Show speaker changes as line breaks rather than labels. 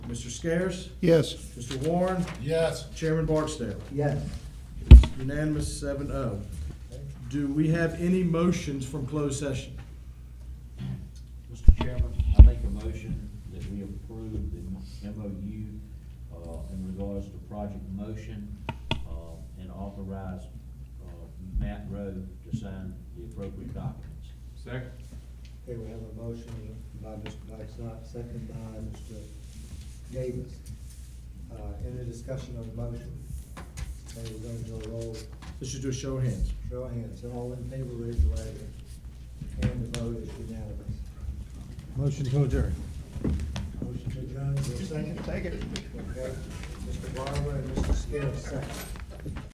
Mr. Scares?
Yes.
Mr. Warren?
Yes.
Chairman Barksdale?
Yes.
It's unanimous, seven oh. Do we have any motions from closed session?
Mr. Chairman, I make a motion that we approve the MOU uh, in regards to Project Motion uh, and authorize uh, Matt Rowe to sign the appropriate documents.
Second.
Okay, we have a motion by Mr. Dykstra, second by Mr. Davis. Uh, any discussion on the motion? Okay, we're gonna do a roll,
Let's just do a show of hands.
show of hands, all in favor, raise your right hand. And the vote is unanimous.
Motion to adjourn.
Motion to adjourn, is there a second? Second. Okay, Mr. Barber and Mr. Scares, second.